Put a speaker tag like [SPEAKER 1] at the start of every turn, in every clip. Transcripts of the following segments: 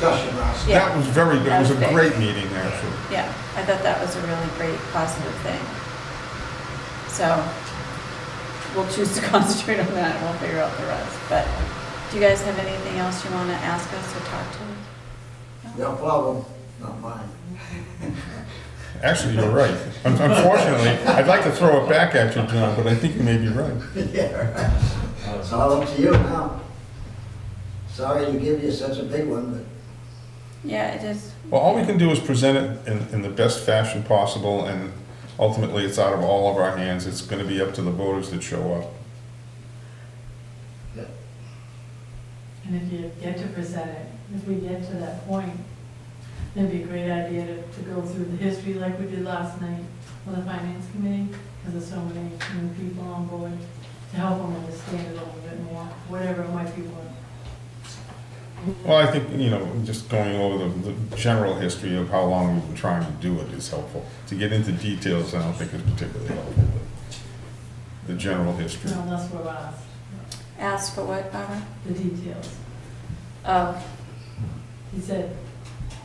[SPEAKER 1] That
[SPEAKER 2] Yeah.
[SPEAKER 1] was very good. It was
[SPEAKER 2] That
[SPEAKER 1] a
[SPEAKER 2] was
[SPEAKER 1] great
[SPEAKER 2] big.
[SPEAKER 1] meeting, actually.
[SPEAKER 2] Yeah, I thought that was a really great positive thing. So we'll choose to concentrate on that and we'll figure out the rest. But do you guys have anything else you want to ask us or talk to?
[SPEAKER 3] No problem, not mine.
[SPEAKER 1] Actually, you're right. Un- Unfortunately, I'd like to throw it back at you, John, but I think you may be right.
[SPEAKER 3] Yeah, It's all up to you now. Sorry to give you such a big one, but
[SPEAKER 2] Yeah, it is.
[SPEAKER 1] Well, all we can do is present it in, in the best fashion possible, and ultimately, it's out of all of our hands. It's gonna be up to the voters that show up.
[SPEAKER 4] And if you get to present it, if we get to that point, it'd be a great idea to, to go through the history like we did last night with the finance committee, because there's so many new people on board, to help them understand it a little bit more, whatever it might be worth.
[SPEAKER 1] Well, I think, you know, just going over the, the general history of how long we've been trying to do it is helpful. To get into details, I don't think is particularly helpful, but the general
[SPEAKER 4] you
[SPEAKER 1] history.
[SPEAKER 4] know, unless we're asked,
[SPEAKER 2] Ask for what, Barbara?
[SPEAKER 4] the details.
[SPEAKER 2] Oh,
[SPEAKER 4] He said,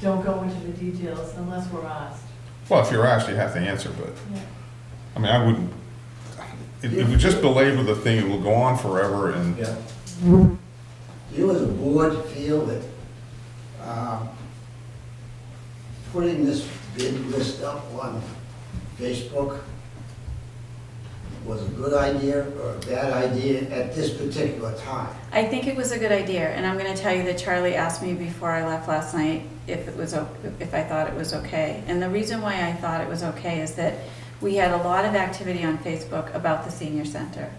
[SPEAKER 4] don't go into the details unless we're asked.
[SPEAKER 1] Well, if you're asked, you have to answer, but,
[SPEAKER 4] Yeah.
[SPEAKER 1] I mean, I wouldn't, if, if we just belabor the thing, it will go on forever and,
[SPEAKER 3] Yeah. Do you as a board feel that um, putting this bid list up on Facebook was a good idea or a bad idea at this particular time?
[SPEAKER 2] I think it was a good idea, and I'm going to tell you that Charlie asked me before I left last night if it was, o- if I thought it was okay. And the reason why I thought it was okay is that we had a lot of activity on Facebook about the senior center.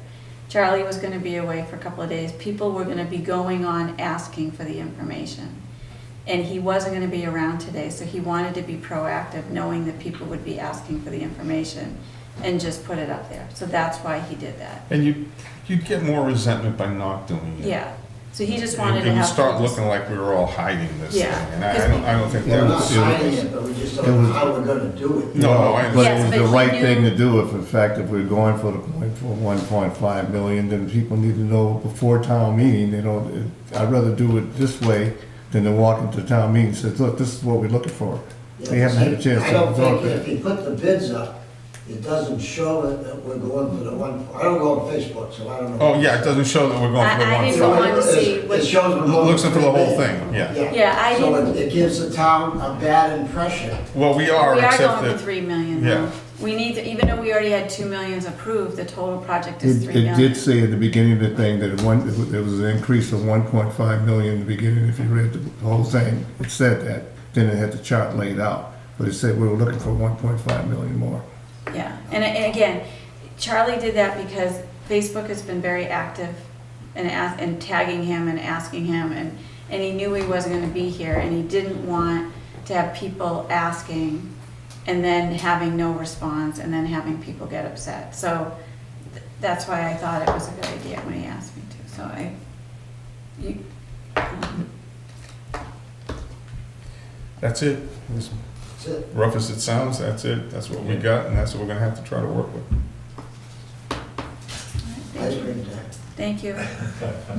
[SPEAKER 2] Charlie was going to be away for a couple of days. People were going to be going on asking for the information. And he wasn't going to be around today, so he wanted to be proactive, knowing that people would be asking for the information and just put it up there. So that's why he did that.
[SPEAKER 1] and you, you'd get more resentment by not doing it.
[SPEAKER 2] Yeah, so he just
[SPEAKER 1] And
[SPEAKER 2] wanted to
[SPEAKER 1] and you
[SPEAKER 2] have.
[SPEAKER 1] start
[SPEAKER 2] things-
[SPEAKER 1] looking like we were all hiding this thing,
[SPEAKER 2] Yeah,
[SPEAKER 1] and I, I
[SPEAKER 2] 'cause
[SPEAKER 1] don't, I don't think that
[SPEAKER 3] We're not
[SPEAKER 1] was.
[SPEAKER 3] signing it, but we just don't know how we're gonna do it.
[SPEAKER 1] No, no, I understand.
[SPEAKER 5] But
[SPEAKER 2] Yes,
[SPEAKER 5] it was
[SPEAKER 2] but
[SPEAKER 5] the
[SPEAKER 2] he
[SPEAKER 5] right
[SPEAKER 2] knew-
[SPEAKER 5] thing to do if, in fact, if we're going for the point for one point five million, then people need to know before town meeting, they don't, I'd rather do it this way than to walk into town meeting and say, look, this is what we're looking for. They haven't had a chance
[SPEAKER 3] I
[SPEAKER 5] to
[SPEAKER 3] don't
[SPEAKER 5] absorb
[SPEAKER 3] think if
[SPEAKER 5] it.
[SPEAKER 3] you put the bids up, it doesn't show that- that we're going for the one, I don't go on Facebook, so I don't know.
[SPEAKER 1] Oh, yeah, it doesn't show that we're going for the
[SPEAKER 2] I- I
[SPEAKER 1] one
[SPEAKER 2] didn't
[SPEAKER 3] So
[SPEAKER 1] five.
[SPEAKER 2] want- to see
[SPEAKER 3] it-
[SPEAKER 2] what-
[SPEAKER 3] It shows we're going.
[SPEAKER 1] Looks into the
[SPEAKER 3] bid.
[SPEAKER 1] whole thing, yeah.
[SPEAKER 2] Yeah, I
[SPEAKER 3] So it-
[SPEAKER 2] didn't-
[SPEAKER 3] it gives the town a bad impression.
[SPEAKER 1] Well, we are,
[SPEAKER 2] We are
[SPEAKER 1] except
[SPEAKER 2] going for
[SPEAKER 1] that,
[SPEAKER 2] three million
[SPEAKER 1] Yeah.
[SPEAKER 2] though. We need, to even though we already had two millions approved, the total project is
[SPEAKER 5] It,
[SPEAKER 2] three
[SPEAKER 5] it did
[SPEAKER 2] million.
[SPEAKER 5] say at the beginning of the thing that it one, there was an increase of one point five million in the beginning, if you read the whole thing, it said that. Then it had the chart laid out, but it said we were looking for one point five million more.
[SPEAKER 2] Yeah, and, and again, Charlie did that because Facebook has been very active and ask, and tagging him and asking him and, and he knew he wasn't gonna be here and he didn't want to have people asking and then having no response and then having people get upset. So th- that's why I thought it was a good idea when he asked me to, so I, you, um,
[SPEAKER 1] that's it. As
[SPEAKER 3] That's it.
[SPEAKER 1] rough as it sounds, that's it. That's what we got, and that's what we're gonna have to try to work with.
[SPEAKER 3] Ice
[SPEAKER 2] Thank you.
[SPEAKER 3] cream time.
[SPEAKER 2] Thank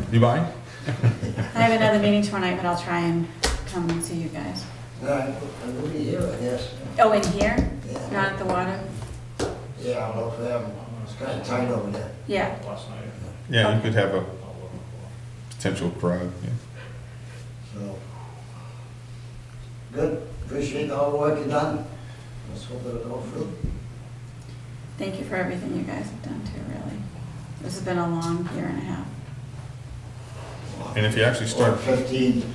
[SPEAKER 2] you.
[SPEAKER 1] You buying?
[SPEAKER 2] I have another meeting tomorrow night, but I'll try and come and see you guys.
[SPEAKER 3] All right, uh, I will be here, I guess.
[SPEAKER 2] Oh, in here?
[SPEAKER 3] Yeah.
[SPEAKER 2] Not at the water?
[SPEAKER 3] Yeah, I'll look for them. It's kind of tight over there.
[SPEAKER 2] Yeah.
[SPEAKER 6] last night.
[SPEAKER 1] Yeah, you could have a potential crowd, yeah.
[SPEAKER 3] So, good, appreciate all the work you've done. Let's hope it'll go through.
[SPEAKER 2] Thank you for everything you guys have done too, really. This has been a long year and a half.
[SPEAKER 1] And if you actually
[SPEAKER 3] Or
[SPEAKER 1] start,
[SPEAKER 3] fifteen,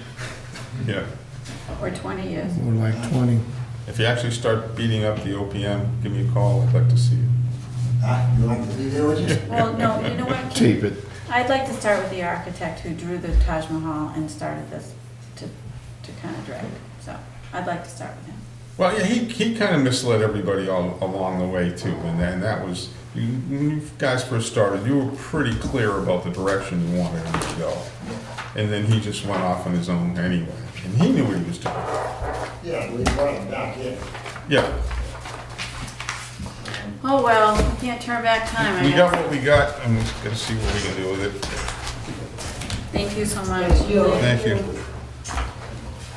[SPEAKER 1] yeah,
[SPEAKER 2] Or 20 years.
[SPEAKER 5] More like twenty.
[SPEAKER 1] if you actually start beating up the OPM, give me a call, I'd like to see you.
[SPEAKER 3] ah, you want to be there with you?
[SPEAKER 2] Well, no, you know what?
[SPEAKER 5] Tape it.
[SPEAKER 2] I'd like to start with the architect who drew the Taj Mahal and started this to, to kind of drag. So I'd like to start with him.
[SPEAKER 1] Well, yeah, he, he kind of misled everybody all along the way too, and then that was, you, when you guys first started, you were pretty clear about the direction you wanted him to go. And then he just went off on his own anyway, and he knew what he was doing.
[SPEAKER 3] Yeah, we brought it back in.
[SPEAKER 1] Yeah,
[SPEAKER 2] Oh, well, we can't turn back time, I
[SPEAKER 1] we got
[SPEAKER 2] guess.
[SPEAKER 1] what we got, and we're gonna see what we can do with it.
[SPEAKER 2] Thank you so much.
[SPEAKER 3] Thank you.
[SPEAKER 1] Thank you.